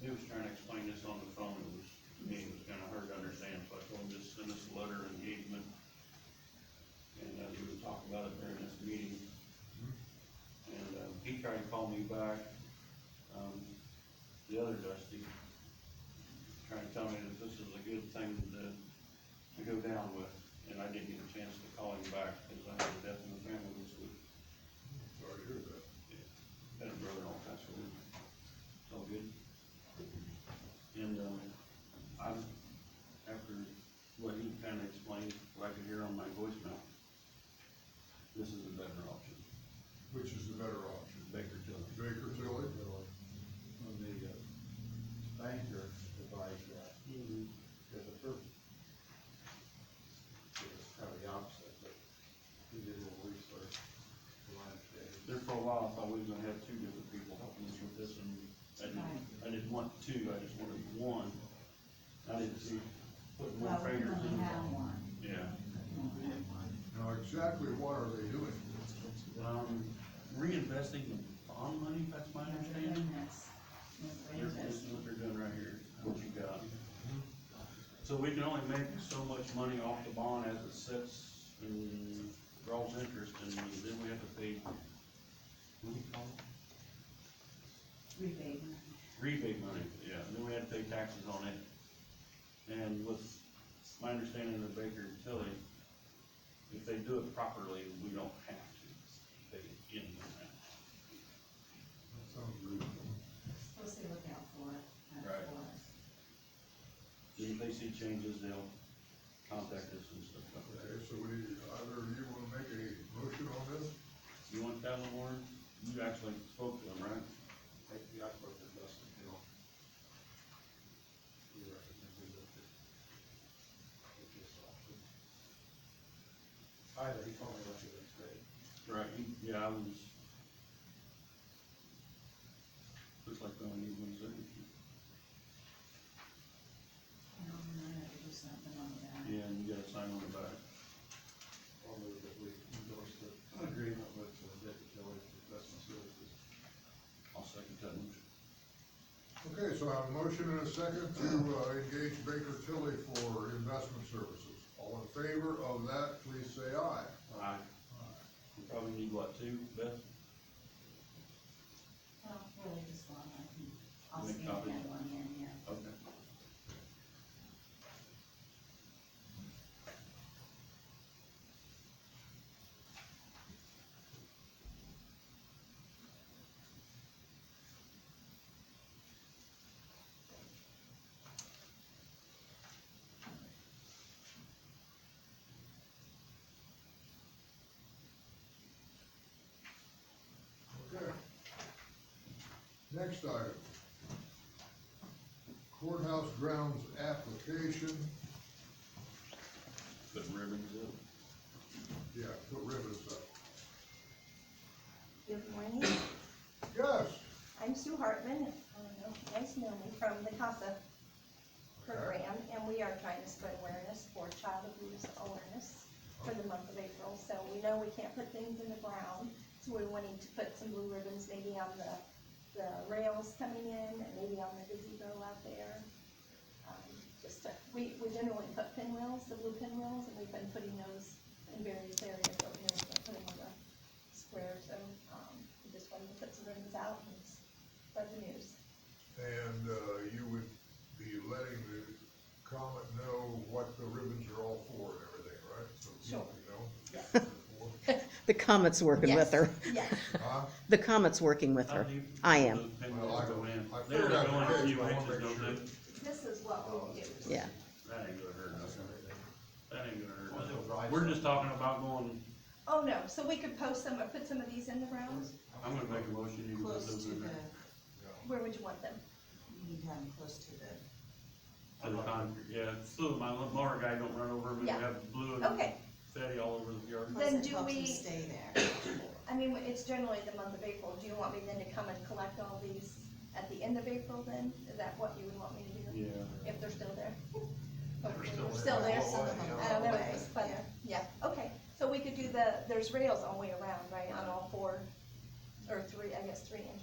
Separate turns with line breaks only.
he was trying to explain this on the phone, it was, to me, it was kinda hard to understand, so I told him, just send us a letter of engagement. And, uh, we would talk about it during this meeting. And, uh, he tried to call me back, um, the other Dusty, trying to tell me that this is a good thing to, to go down with, and I didn't get a chance to call him back, cause I had a death in the family this week.
Sorry to hear that.
Got a brother all kinds of weird. It's all good. And, um, I, after what he kinda explained, what I could hear on my voicemail, this is a better option,
Which is the better option?
Baker Tilly.
Baker Tilly?
On the uh, banker advised that,
Mm-hmm.
that the first, it was kind of the opposite, but he did a little research, from my understanding.
There for a while, I thought we was gonna have two different people helping us with this, and I didn't, I didn't want two, I just wanted one. I didn't see, put more
Well, we
fingers
only
in.
have one.
Yeah.
We only have one.
Now, exactly what are they doing?
Um, reinvesting the bond money, if that's my understanding.
That's- that's what it
Here's this
is.
is what they're doing right here, what you got. So we can only make so much money off the bond as it sits and draws interest, and then we have to pay, what do you call it?
Rebate.
Rebate money, yeah, and then we have to pay taxes on it. And with my understanding of the Baker and Tilly, if they do it properly, we don't have to pay in on
Sounds reasonable.
Supposed to look out for it. not
Right.
for us.
that. If they see changes, they'll contact us and stuff like that.
Okay, so we, either you wanna make a motion on this?
You want that one, Warren? You actually spoke to them, right?
Thank you, I spoke to Dustin Hill. He recommended that the- that this option. Either he told me what he was saying.
Right. Yeah, I was. Looks like they only need one signature.
And I'm gonna have to do something on that.
Yeah, and you gotta sign on the back.
I'll move that we endorse the agreement with uh, the Baker Tilly Investment Services.
I'll second that one.
Okay, so I have a motion and a second to uh, engage Baker Tilly for investment services. All in favor of that, please say aye.
Aye. We probably need what, two, Beth?
Well, really just one, I can, I'll
Make
scan
copies.
that one in, yeah.
Okay.
Okay. Next item. Courthouse grounds application,
Put ribbons up.
yeah, put ribbons up.
Good morning,
Yes,
I'm Sue Hartman, um, nice to know me, from the CASA program, and we are trying to spread awareness for child abuse awareness for the month of April, so we know we can't put things in the ground, so we're wanting to put some blue ribbons maybe on the, the rails coming in, and maybe on the gazebo out there. Um, Just, to- we, we generally put pinwheels, the blue pinwheels, and we've been putting those in various areas, but we never put them on the square, so, um, we just wanted to put some ribbons out and spread the news.
and, uh, you would be letting the comet know what the ribbons are all for and everything, right? So you
Sure.
know.
The comet's working with her.
Yes.
Huh?
The comet's working with
How
her.
do you-
I am.
Those
Well,
pinwheels
I-
go in.
I
They're
figured out
going
the
a
page,
few
but I wanna
inches,
make
don't
sure.
they?
This is what we do.
Yeah.
That ain't gonna hurt us. That ain't gonna hurt
Well, they'll
us.
drive
We're
some.
just talking about going,
Oh, no, so we could post some, or put some of these in the ground?
I'm gonna make a motion, you can put
Close
those
to
in
the,
there.
Where would you want them?
you need to have them close to the,
To the concrete, yeah, so my lawnmower guy don't run over them and
Yeah.
have blue and
Okay,
fatty all over the yard.
Then
plus it
do
helps them
we-
stay there.
I mean, it's generally the month of April, do you want me then to come and collect all these at the end of April then? Is that what you would want me to do?
Yeah.
If they're still there? Hopefully
still
they're
there.
still there,
Well,
some of
Oh,
well,
them,
yeah.
Oh, I don't know, it's but, yeah, okay. So we could do the, there's rails all the way around, right, on all four, or three, I guess, three and